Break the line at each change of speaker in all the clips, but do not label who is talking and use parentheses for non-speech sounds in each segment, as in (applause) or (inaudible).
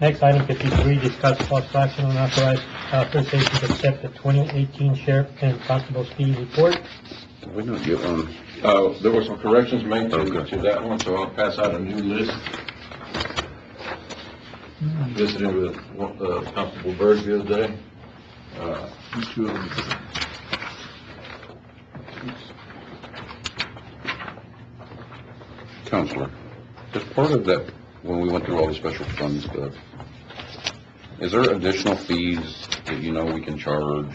Next, item fifty-three, discuss possible action on authorized authorization to accept the twenty eighteen sheriff and constable fee report.
We don't get on,
Uh, there were some corrections made to,
Okay.
to that one, so I'll pass out a new list. Visited with, one- uh, Constable Berg the other day. Uh, two of them.
Counselor, as part of that, when we went through all the special fund stuff, is there additional fees that you know we can charge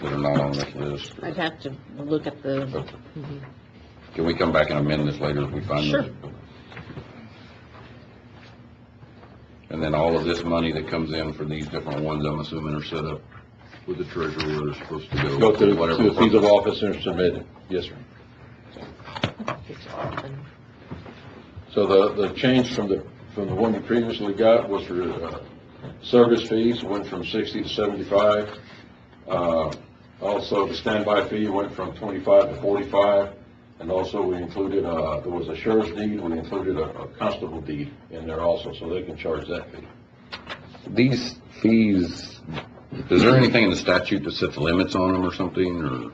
that are not on this list?
I'd have to look at the,
Okay. Can we come back and amend this later if we find
Sure.
that? And then all of this money that comes in for these different ones, I'm assuming are set up with the treasurer where they're supposed to go.
Go through,
whatever
to the fees of
purpose.
office and submitted, yes, sir. So the, the change from the, from the one you previously got was for, uh, service fees, went from sixty to seventy-five. Uh, also, the standby fee went from twenty-five to forty-five, and also we included, uh, there was a sheriff's deed, we included a, a constable deed in there also, so they can charge that fee.
These fees, is there anything in the statute that sets limits on them or something, or Oh.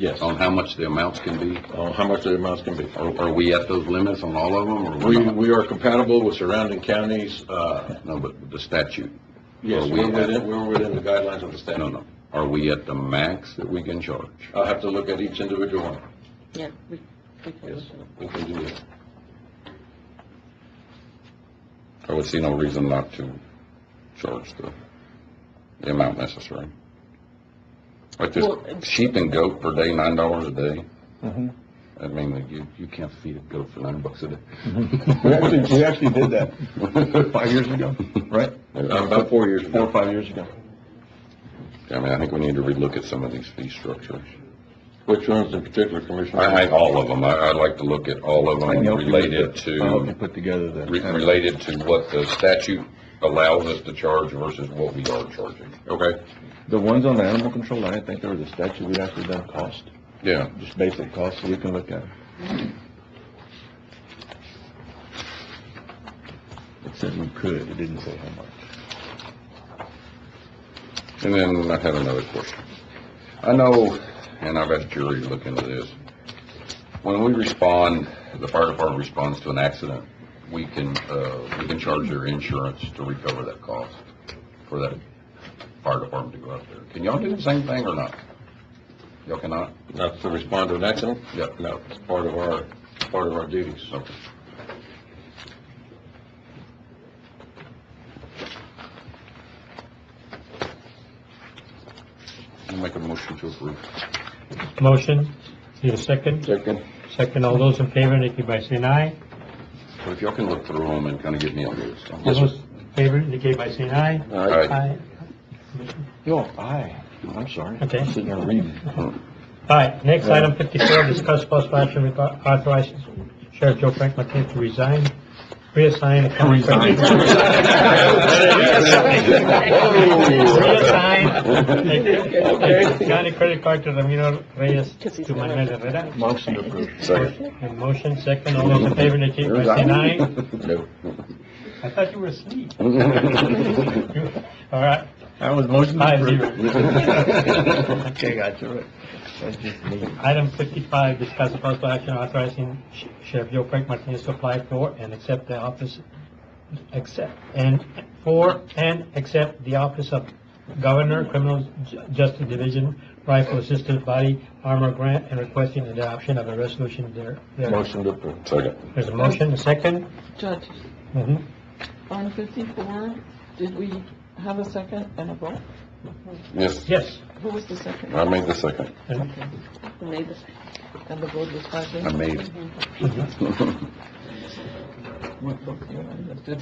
Yes.
on how much the amounts can be?
On how much the amounts can be.
Are, are we at those limits on all of them, or
We,
we're not?
we are compatible with surrounding counties, uh,
No, but the statute,
yes,
Are we
we're
at-
within, we're within the guidelines of the
no,
statute.
no. Are we at the max that we can charge?
I'll have to look at each individual one,
yeah, we, we can
yes,
look at it.
we can do that.
I would see no reason not to charge the, the amount necessary. Like this
Well, it's-
sheep and goat per day, nine dollars a day.
Mm-hmm.
I mean, like, you, you can't feed a goat for nine bucks a Mm-hmm.
We actually, we actually did
(laughs)
that,
day.
Five years ago? right?
Uh,
About four years
Four or
ago.
five years ago.
I mean, I think we need to relook at some of these fee structures.
Which ones in particular, Commissioner?
I think all of them, I, I'd like to look at all of them related
I hope you
to,
put together (laughs) the.
re- related to what the statute allows us to charge versus what we are charging. Okay.
The ones on the animal control, I didn't think there was a statute, we actually done cost,
Yeah,
just basic cost, so we can look at it. It said we could, it didn't say how much.
And then I had another question. I know, and I've had a jury look into this, when we respond, the fire department responds to an accident, we can, uh, we can charge their insurance to recover that cost for that fire department to go out there. Can y'all do the same thing or not? Y'all cannot?
Not to respond to an accident?
Yeah.
No, it's part of our, it's part of our duties.
Okay. I'll make a motion to approve.
Motion, need a second?
Second.
Second, all those in favor, indicate by saying aye.
But if y'all can look through them and kind of get me on this.
All those in favor, indicate by saying aye.
All right,
Aye.
Yo, I, I'm sorry.
Okay.
I'm Sitting there reading.
All right, next item fifty-four, discuss possible action reg- authorizing Sheriff Joe Frank Martinez to resign, reassign. the county
Resign. (laughs)
(laughs) Reassign. the County credit card to Ramiro Reyes
Because he's
to
not
Manuel
elected.
Herrera.
Motion approved.
second.
And motion second, all those in favor indicate by saying aye.
(laughs) No.
I thought you were asleep. All right,
That was motion
Five
approved. (laughs)
zero.
Okay, gotcha, right. That's just me.
Item fifty-five, discuss the possible action authorizing Sh- Sheriff Joe Frank Martinez to apply for and accept the office, accept, and for and accept the office of Governor Criminal Ju- Justice Division Rifle Assistance Body Armor Grant and requesting the adoption of a resolution there. there.
Motion approved.
Second.
There's a motion, a second.
Judge,
Mhm.
on fifty-four, did we have a second and a vote?
Yes,
Yes.
Who was the second?
I made the second.
And-
We made this-
And the vote was five
I
yes?
made it.
mhm.
What book you understood?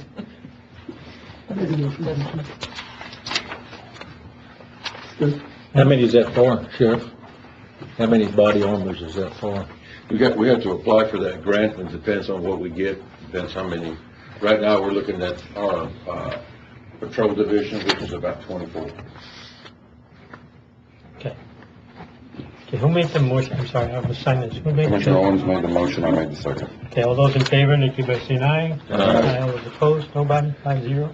How many is that for, Sheriff? How many body armors is that for?
We got, we have to apply for that grant, and it depends on what we get, depends how many. Right now, we're looking at our, uh, patrol division, which is about twenty-four.
Okay. Okay, who made the motion? I'm sorry, I was silent. Who made the
Commissioner Owens made the motion, I made the second.
Okay, all those in favor, indicate by saying aye.
Aye.
All those opposed, nobody, five zero.